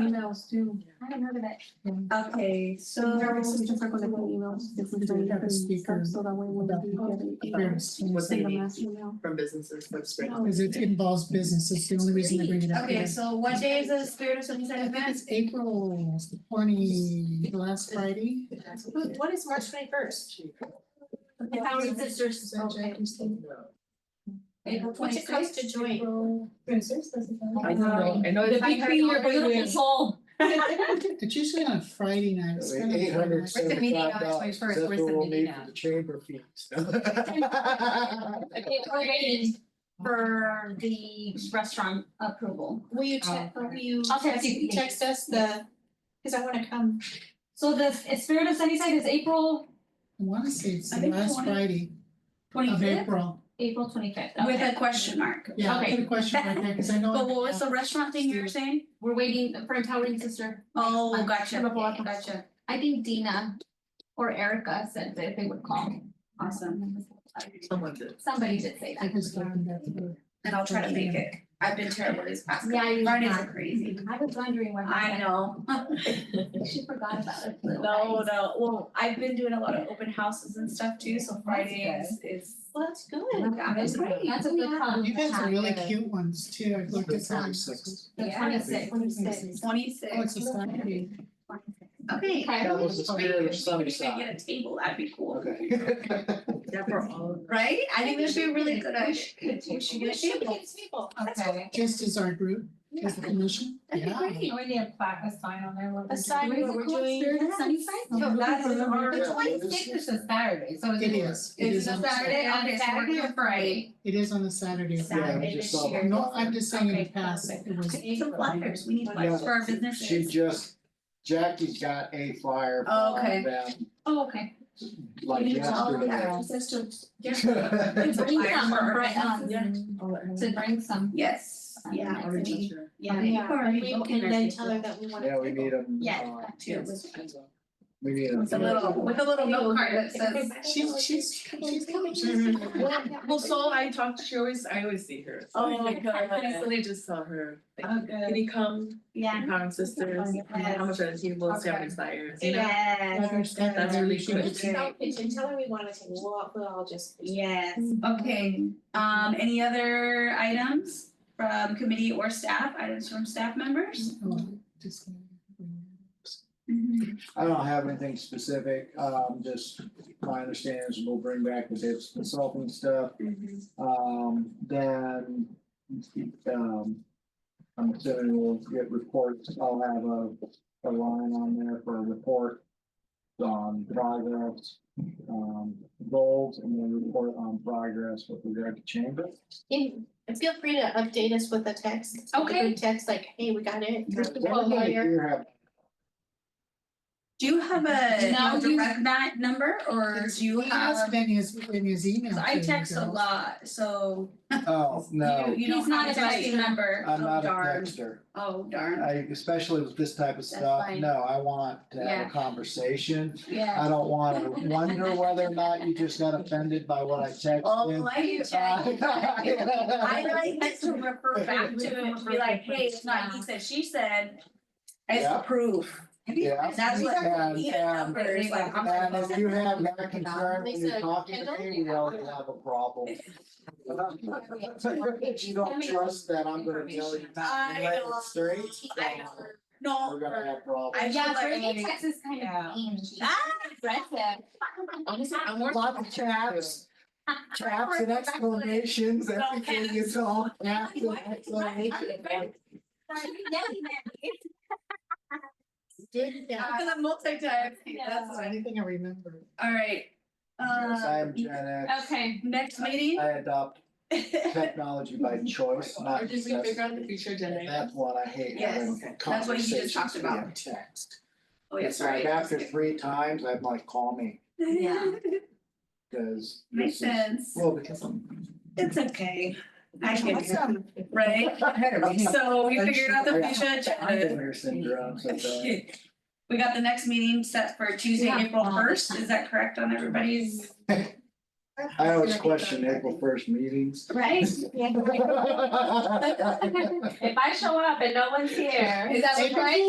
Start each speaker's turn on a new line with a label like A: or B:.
A: emails too. I haven't heard of it.
B: Okay, so.
A: There was just like the emails. if we can-
C: Have a speaker
A: So that way we'll be able to
C: about
D: What they
A: send a
D: need
A: mass email.
D: from businesses for spring.
A: No.
C: Because it involves business, it's the only reason I bring it up.
B: Okay,
C: here.
B: so what day is the Spirit of Sunnyside
C: I think
B: event?
C: it's April twenty, last Friday.
B: What is March twenty first? The Founding Sisters, okay. April twenty
E: Which comes
B: sixth
E: to join.
D: I know, I know.
E: The
D: it's-
E: between your beautiful soul.
C: It's usually on a Friday night. It's kind of
F: Eight hundred
C: a-
F: seventy
E: meeting on
F: five
E: the
F: dollars,
E: 21st?
F: that's what
E: Where's the
F: we'll
E: meeting
F: need
E: at?
F: for the chamber fees.
E: Okay, we're waiting for the restaurant approval.
B: Will you check, will you?
E: I'll text you.
B: Oh, Text us the, cause I wanna come.
E: So the Spirit of Sunnyside is April
C: I wanna say it's
E: I
C: the
E: think
C: last
E: 20
C: Friday
E: twenty
C: of
E: fifth,
C: April.
E: April twenty fifth.
B: With a question mark.
C: Yeah,
E: Okay.
C: I put a question right there, cause I know.
B: But what was the restaurant thing you were saying?
E: We're waiting for Empowering Sister.
B: Oh,
E: Yeah,
B: gotcha,
E: yeah, yeah.
B: gotcha.
E: I think Dina or Erica said that they would call.
B: Awesome.
D: Someone did.
E: Somebody did say
C: I
E: that.
C: was looking back through.
B: And I'll try to make it. I've been terrible these past.
E: Yeah, you're
B: Fridays
E: not.
B: are crazy.
E: I was wondering what.
B: I know.
E: know. She forgot about it. little
B: No,
E: guys.
B: no, well, I've been doing a lot of open houses and stuff too, so Friday is is.
E: Well, that's good.
B: Yeah, that's great.
E: That's a good
B: Yeah.
E: problem.
C: You guys are really
E: Yeah.
C: cute ones too, I've looked at some.
F: 26.
E: The
B: Yeah.
E: twenty-sixth.
C: Twenty-six.
B: Twenty-six.
C: Oh, it's a Saturday.
B: Okay.
E: Okay.
F: That was the spirit of
B: If we could
F: Sunnyside.
B: get a table, that'd be cool,
F: Okay.
B: right? I think this should be a really good idea. We should get a table.
E: people.
B: Okay.
C: Just as our group, as the commission,
B: That'd be
C: yeah.
B: great.
G: We need a plaque, a sign on there. what we're
E: Aside
G: doing.
E: what we're doing. Spirit of Sunnyside?
C: I'm
B: So
C: looking
B: that's
C: for
B: in
C: number-
B: our-
G: The
F: Yeah.
G: twenty-sixth is a Saturday, so it's.
C: It is, it
B: It's
C: is
B: a
C: on,
B: Saturday.
G: Saturday, on
B: Okay,
G: a
B: so we're
G: Saturday
B: doing
G: or Friday.
C: it is on a Saturday.
F: Saturday
E: Saturday
F: just
E: this
F: saw
E: year.
C: No, I'm just saying in the
E: Okay.
C: past, it was,
B: We need Some flyers, we need flyers for our businesses.
F: She just, Jackie's got a flyer
B: Oh,
F: on
B: okay.
F: them,
E: Oh, okay.
F: like yesterday.
B: It's flyers
E: Bring some,
B: for our
E: right, um,
B: businesses.
E: To bring some.
B: Yes, yeah.
E: Or we-
B: Yeah.
E: Yeah.
B: Or we
E: We
B: can
E: can
B: then
E: then
B: tell her that we want.
F: Yeah, we need them. uh,
E: Yeah.
F: We need them.
B: With a little, with a little note card that says.
C: she's, she's, she's coming.
D: Well, so I talked, she always, I always see her. so-
B: Oh my God.
D: Recently just saw her. like,
G: Oh, good.
D: Can you come,
B: Yeah.
D: Crown Sisters, how much are the tables, do you have any flyers, you know?
B: Yes,
D: That's really good.
G: tell her we want to, we'll, we'll all just.
B: yes, okay, um, any other items from committee or staff, items from staff members?
C: Oh, just-
B: Mm-hmm.
F: I don't have anything specific, um, just my understanding is we'll bring back the bits consulting stuff.
B: Mm-hmm.
F: Um, then, um, I'm assuming we'll get reports, I'll have a, a line on there for a report on progress, um, goals, and then report on progress with regard to chamber.
G: Feel free to update us with a text.
E: Okay.
G: Text like, hey, we got it.
F: You have
B: Do you have a
E: Now
B: a
E: you-
B: direct mat number or do you
C: He has
B: have?
C: been his, in his email.
B: 'cause I
C: to
B: text a
C: girls.
B: lot, so
F: Oh,
B: you,
F: no,
B: you don't
E: He's not
B: have
E: a
B: a direct
E: texter.
B: number,
F: I'm
B: oh
F: not a
B: darn,
F: texter.
B: oh darn,
F: I, especially with this type of stuff,
B: fine.
F: no, I want to have
B: Yeah.
F: a conversation.
B: yeah.
F: I don't wanna wonder whether or not you just got offended by what I
B: Oh,
F: texted.
B: I do check. I like that to refer back to it, to be like, hey, it's not he said, she said.
F: Yeah.
B: It's proof.
F: Yeah.
B: That's what
F: And-
B: we need a
F: and-
B: number, it's like, I'm
F: And if
B: like.
F: you have that concern when you're
G: Lisa,
F: talking to
G: Kendall?
F: me, we already have a problem. If you don't trust that, I'm gonna tell you not to let it straight, then
B: No.
F: we're gonna have problems.
B: I
E: Yeah,
B: feel like-
E: Brittany texts is kind
G: Yeah.
E: of mean. She's
B: Ah!
E: aggressive.
D: I'm more.
F: Lots of traps, traps and exclamations, everything is all caps and exclamations.
E: Yeah, yeah.
C: Did that,
B: Because I'm multitasking, that's
C: that's the
B: why.
C: only thing I remember.
B: All right.
F: Yes, I
B: Uh,
F: am Gen X.
E: Okay.
B: next
F: I
B: meeting?
F: adopt technology by choice, not
D: Or did we
F: necessity.
D: figure out the future
F: And
D: generations?
F: That's what I hate.
B: Yes,
F: having
B: that's what he just talked
F: conversations
B: about.
F: via Text.
B: Oh, yes,
F: It's like after
B: right.
F: three times, I'm like, call me,
E: Yeah.
F: because.
B: Makes sense.
F: Well, because I'm.
B: It's okay. I can, do it,
C: Awesome.
B: right? So we figured out the
F: Yeah.
B: future agenda.
F: Islander syndrome, so uh, bad.
B: We got the next meeting set for Tuesday,
E: Yeah.
B: April first. Is that correct on everybody's?
F: I always question April first meetings.
E: Right? If I show up and no one's here.
B: Is that
C: April
B: right?